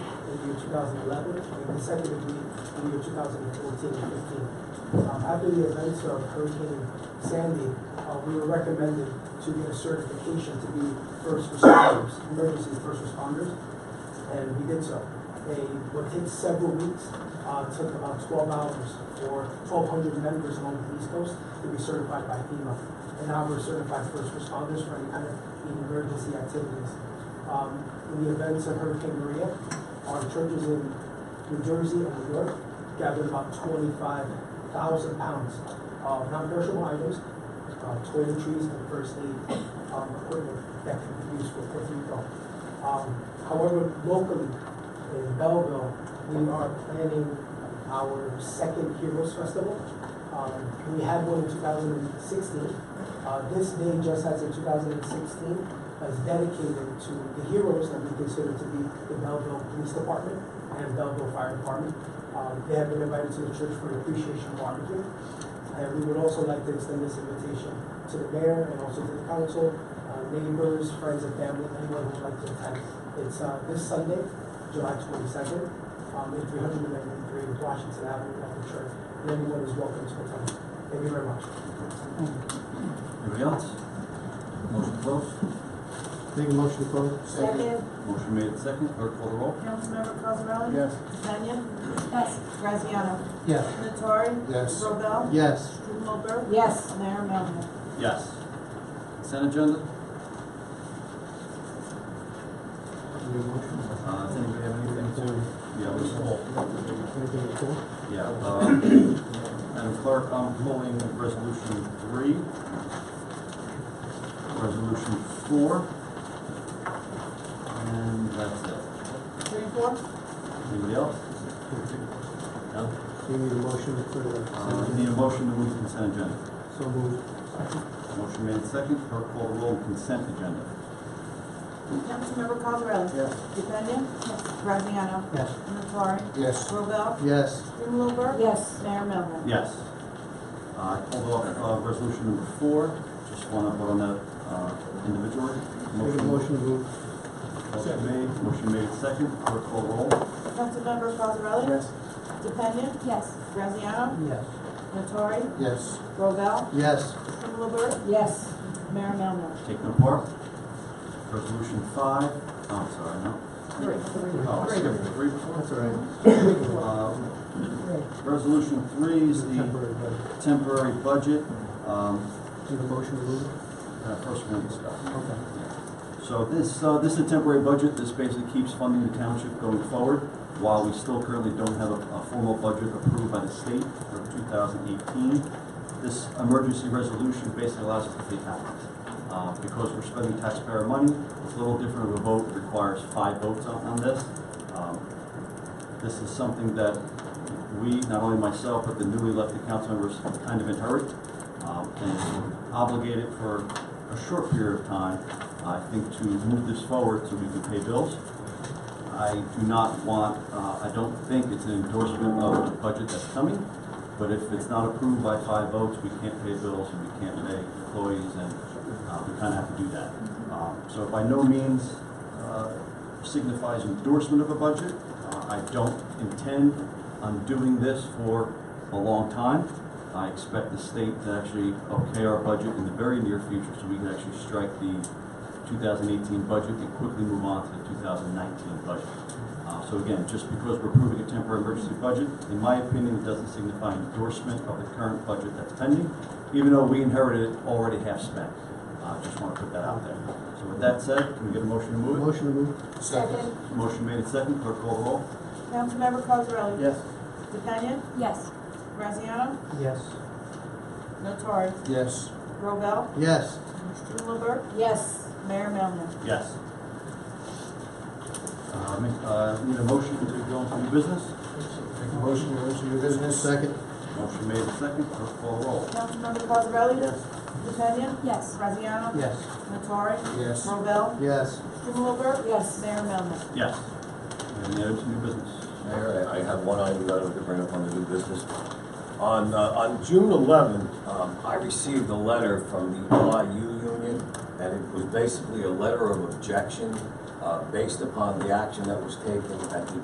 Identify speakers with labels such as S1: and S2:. S1: 2011, and the second would be the year 2014 and 15. Um, After the events of Hurricane Sandy, uh, we were recommended to get a certification to be first responders, emergency first responders, and we did so. A, what takes several weeks, uh, took about 12 hours for 1,200 members along the East Coast to be certified by FEMA. And now we're certified first responders for any kind of emergency activities. Um, in the events of Hurricane Maria, our churches in New Jersey and New York gathered about twenty-five thousand pounds of non-perishable items, uh, toiletries and first aid, um, equipment that could be used for Puerto Rico. Um, however, locally, in Belleville, we are planning our second Heroes Festival. Um, we had one in two thousand and sixteen, uh, this day, just as in two thousand and sixteen, is dedicated to the heroes that we consider to be the Belleville Police Department and Belleville Fire Department. Um, they have been invited to the church for an appreciation barbecue. And we would also like to extend this invitation to the mayor and also to the council, uh, neighbors, friends and family, anyone who would like to attend. It's, uh, this Sunday, July twenty-second, um, in three hundred and ninety-three Washington Avenue, at the church. And Anyone is welcome to attend. Thank you very much.
S2: Anybody else? Motion closed.
S3: Make a motion to close?
S4: Second,
S2: Motion made second. Clerk call the roll.
S4: Councilmember Cosarelli?
S3: Yes.
S4: Tanya? Yes. Graziano?
S3: Yes.
S4: Natori?
S3: Yes.
S4: Robel?
S3: Yes.
S4: Strumelberg? Yes. Mayor Melvin?
S2: Yes. Consent agenda. Uh, does anybody have anything to? Yeah, we
S3: Anything to pull?
S2: Yeah. um, Madam Clerk, I'm pulling resolution three. Resolution four. And that's it.
S4: Three, four?
S2: Anybody else?
S3: Uh,
S2: No?
S3: We need a motion for the
S2: Uh,
S3: consent
S2: need a
S3: agenda.
S2: motion to move consent agenda.
S3: So moved.
S2: Motion made second. Clerk call the roll. Consent agenda.
S4: Councilmember Cosarelli?
S3: Yes.
S4: Tanya? Yes. Graziano?
S3: Yes.
S4: Natori?
S3: Yes.
S4: Robel?
S3: Yes.
S4: Strumelberg? Yes. Mayor Melvin?
S2: Yes. Uh, I pulled off, uh, resolution number four, just wanna vote on that, uh, individually.
S3: Make a motion to move?
S2: Motion made, motion made second, clerk call roll.
S4: Councilmember Cosarelli?
S3: Yes.
S4: DePena? Yes. Graziano?
S3: Yes.
S4: Natori?
S3: Yes.
S4: Robel?
S3: Yes.
S4: Strumelberg? Yes. Mayor Melvin?
S2: Taken apart. Resolution five, oh, I'm sorry, no.
S4: Three.
S2: Oh, I skipped three before.
S3: That's all right.
S2: Uh, Resolution three is the
S3: Temporary vote.
S2: temporary budget, um,
S3: Need a motion to move?
S2: uh, first one discussed.
S3: Okay.
S2: So this, uh, this is a temporary budget, this basically keeps funding the township going forward, while we still currently don't have a, a formal budget approved by the state for two thousand eighteen. This emergency resolution basically allows us to take action, uh, because we're spending taxpayer money, it's a little different of a vote, it requires five votes on, on this. Um, This is something that we, not only myself, but the newly elected council members kind of inherit, um, and we're obligated for a short period of time, I think, to move this forward so we can pay bills. I do not want, uh, I don't think it's an endorsement of the budget that's coming, but if it's not approved by five votes, we can't pay bills and we can't pay employees and, uh, we kinda have to do that. Um, so by no means, uh, signifies endorsement of a budget. Uh, I don't intend on doing this for a long time. I expect the state to actually okay our budget in the very near future so we can actually strike the 2018 budget and quickly move on to the 2019 budget. Uh, So again, just because we're approving a temporary emergency budget, in my opinion, it doesn't signify endorsement of the current budget that's pending, even though we inherited it already half-spent. Uh, Just want to put that out there. So with that said, can we get a motion to move it?
S3: Motion to move?
S4: Second.
S2: Motion made and second, clerk call the roll.
S4: Councilmember Cosarelli?
S3: Yes.
S4: DePena?
S5: Yes.
S4: Graziano?
S3: Yes.
S4: Natori?
S3: Yes.
S4: Robel?
S3: Yes.
S4: Strumelberg? Yes. Mayor Melvin?
S2: Yes. Uh, make- uh, Need a motion to go into new business?
S3: Make a motion to move your business? Second.
S2: Motion made and second, clerk call the roll.
S4: Councilmember Cosarelli? DePena?
S5: Yes.
S4: Graziano?
S3: Yes.
S4: Natori?
S3: Yes.
S4: Robel?
S3: Yes.
S4: Strumelberg? Yes. Mayor Melvin?
S2: Yes. Any other new business?
S6: Mayor, I I have one item that I would bring up on the new business. On, uh, on June eleventh, um, I received a letter from the LIU union, and it was basically a letter of objection, uh, based upon the action that was taken at the